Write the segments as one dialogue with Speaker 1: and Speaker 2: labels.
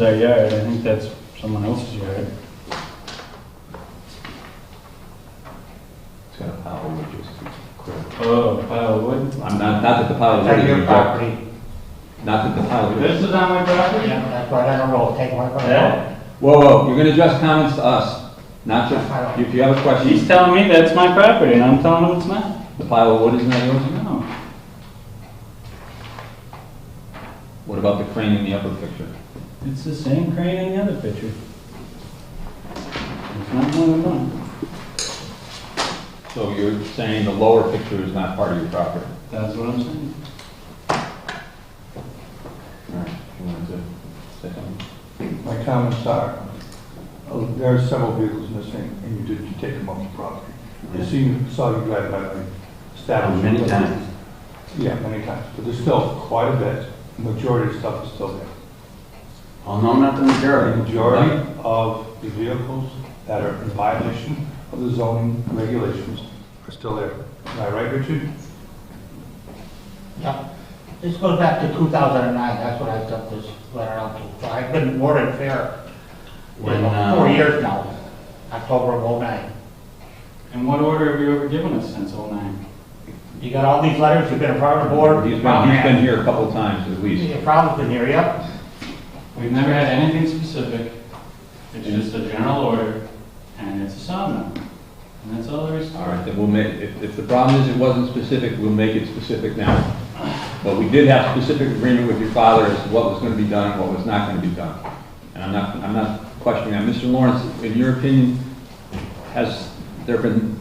Speaker 1: their yard, I think that's someone else's yard.
Speaker 2: It's got a pile of wood, just to be clear.
Speaker 1: Oh, pile of wood?
Speaker 2: I'm not, not that the pile of wood
Speaker 3: Take
Speaker 2: is
Speaker 3: your
Speaker 2: your property,
Speaker 3: property,
Speaker 2: not that the pile of wood.
Speaker 1: This is on my property?
Speaker 3: that's right, I don't know, take my property.
Speaker 1: That,
Speaker 2: Whoa, whoa, you're gonna address comments to us, not to, if you have a question,
Speaker 1: he's telling me that's my property, and I'm telling him it's not.
Speaker 2: the pile of wood is not yours?
Speaker 1: No.
Speaker 2: What about the crane in the upper picture?
Speaker 1: It's the same crane in the other picture. It's not more than one.
Speaker 2: So you're saying the lower picture is not part of your property?
Speaker 1: That's what I'm saying.
Speaker 2: All right, you wanted to say something?
Speaker 4: My comments are, uh, there are several vehicles missing, and you did, you take them off the property. I seen, saw you drive by my
Speaker 2: Oh,
Speaker 4: establishment.
Speaker 2: Many times.
Speaker 4: Yeah, many times, but there's still quite a bit, The majority of stuff is still there.
Speaker 2: Oh, no, not the
Speaker 4: The
Speaker 2: majority.
Speaker 4: majority of the vehicles that are in violation of the zoning regulations are still there. Am I right, Richard?
Speaker 3: Yeah. This goes back to 2009, that's when I took this letter out to, so I've been more fair for
Speaker 2: When, uh,
Speaker 3: four years now, October of '09.
Speaker 1: And what order have you ever given us since '09?
Speaker 3: You got all these letters, you've been in front of the board. Oh,
Speaker 2: He's been, he's been here a couple times at least.
Speaker 3: Your problem's been here, yeah?
Speaker 1: We've never had anything specific. It's just a general order, and it's a sawmill. And that's all there is.
Speaker 2: All right, then we'll make, if, if the problem is it wasn't specific, we'll make it specific now. But we did have specific agreement with your father as to what was gonna be done and what was not gonna be done. And I'm not, I'm not questioning that. Mr. Lawrence, in your opinion, has there been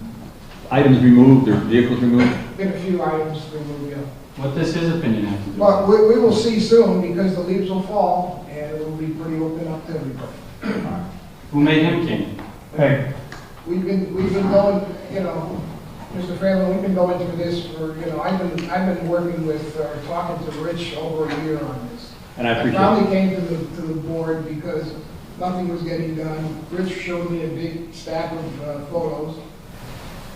Speaker 2: items removed or vehicles removed?
Speaker 5: Been a few items to remove, yeah.
Speaker 1: What does his opinion have to do? with it?
Speaker 5: But we, we will see soon because the leaves will fall and it will be pretty open up to everybody.
Speaker 1: Who made him king?
Speaker 4: Hey,
Speaker 5: We've been, we've been going, you know, Mr. Franlin, we've been going through this for, you know, I've been, I've been working with, or talking to Rich over a year on this.
Speaker 2: And I
Speaker 5: I
Speaker 2: appreciate
Speaker 5: finally came to the, to the board because nothing was getting done. Rich showed me a big stack of uh, photos.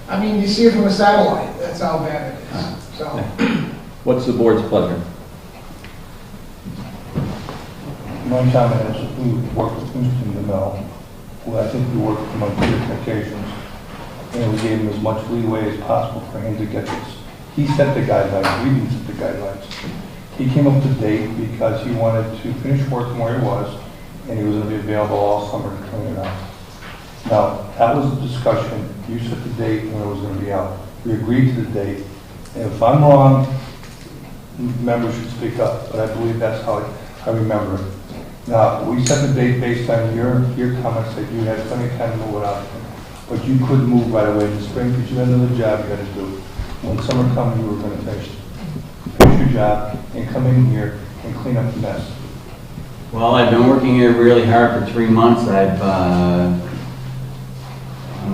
Speaker 5: I mean, you see it from a satellite, that's how bad it is, so.
Speaker 2: What's the board's pleasure?
Speaker 4: my comment is, we worked with Mr. DeMel, who I think we worked with him on two different occasions, and we gave him as much leeway as possible for him to get this. He set the guidelines, we didn't set the guidelines. He came up to date because he wanted to finish work from where he was, and he was gonna be available all summer to clean it up. Now, that was the discussion, you set the date when it was gonna be out, we agreed to the date, and if I'm wrong, members should speak up, but I believe that's how I- I remember it. Now, Uh, we set the date based on your, your comments that you had plenty of time to move it out, but you couldn't move right away in the spring because you had another job you had to do. When summer comes, you were going to finish, finish your job and come in here and clean up the mess.
Speaker 6: Well, I've been working here really hard for three months. I've, uh, uh,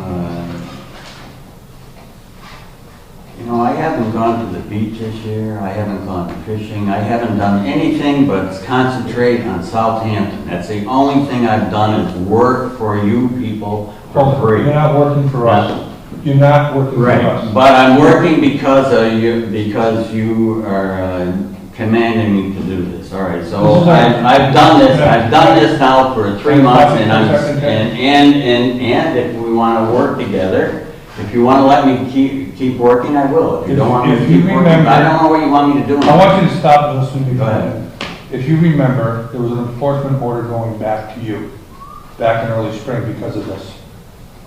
Speaker 6: you know, I haven't gone to the beach this year. I haven't gone fishing. I haven't done anything but concentrate on Southampton. That's the only thing I've done is work for you people for free.
Speaker 4: You're not working for us. You're not working for
Speaker 6: Oh, Right,
Speaker 4: us.
Speaker 6: but I'm working because of you, because you are uh, commanding me to do this, all right, so
Speaker 4: This is our-
Speaker 6: I've, I've done this, I've done this now for three months, and I'm,
Speaker 4: Second, second.
Speaker 6: and, and, and and if we wanna work together, if you wanna let me keep, keep working, I will, if you don't want me to
Speaker 4: If you
Speaker 6: keep working,
Speaker 4: remember-
Speaker 6: I don't know what you want me to do.
Speaker 4: I want you to stop and listen to me.
Speaker 6: Go ahead.
Speaker 4: If you remember, there was an enforcement order going back to you, back in early spring because of this.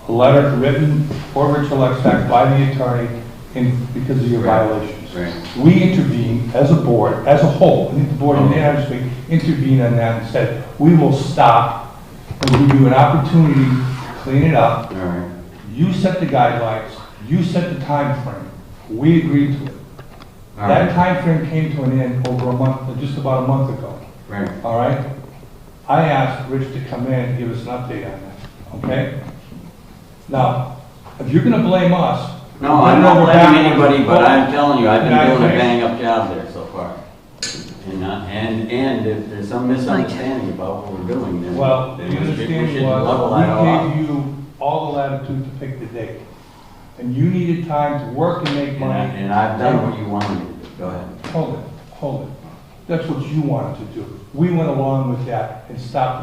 Speaker 4: A letter written for Rich Alexack by the attorney in, because of your
Speaker 6: Right.
Speaker 4: violations.
Speaker 6: Right,
Speaker 4: We intervened as a board, as a whole, I think the
Speaker 6: Oh.
Speaker 4: board unanimously intervened on that and said, we will stop and give you an opportunity to clean it up.
Speaker 6: all right,
Speaker 4: You set the guidelines, you set the time frame. we agreed to it.
Speaker 6: all
Speaker 4: That
Speaker 6: right,
Speaker 4: time frame came to an end over a month, just about a month ago,
Speaker 6: right.
Speaker 4: all right? I asked Rich to come in and give us an update on that, okay? Now, if you're gonna blame us.
Speaker 6: No, I'm
Speaker 4: we're
Speaker 6: not blaming
Speaker 4: back-
Speaker 6: anybody, but I'm telling you, I've
Speaker 4: Can I
Speaker 6: been doing a
Speaker 4: finish?
Speaker 6: bang-up job there so far. And, uh, and, and if there's some misunderstanding about what we're doing, then
Speaker 4: Well, the
Speaker 6: then we should- we should
Speaker 4: understanding
Speaker 6: level
Speaker 4: was,
Speaker 6: that off.
Speaker 4: we gave you all the latitude to pick the date, and you needed time to work and make
Speaker 6: And I-
Speaker 4: money.
Speaker 6: and I've done what you wanted me to do, go ahead.
Speaker 4: Hold it, hold it. That's what you wanted to do. We went along with that and stopped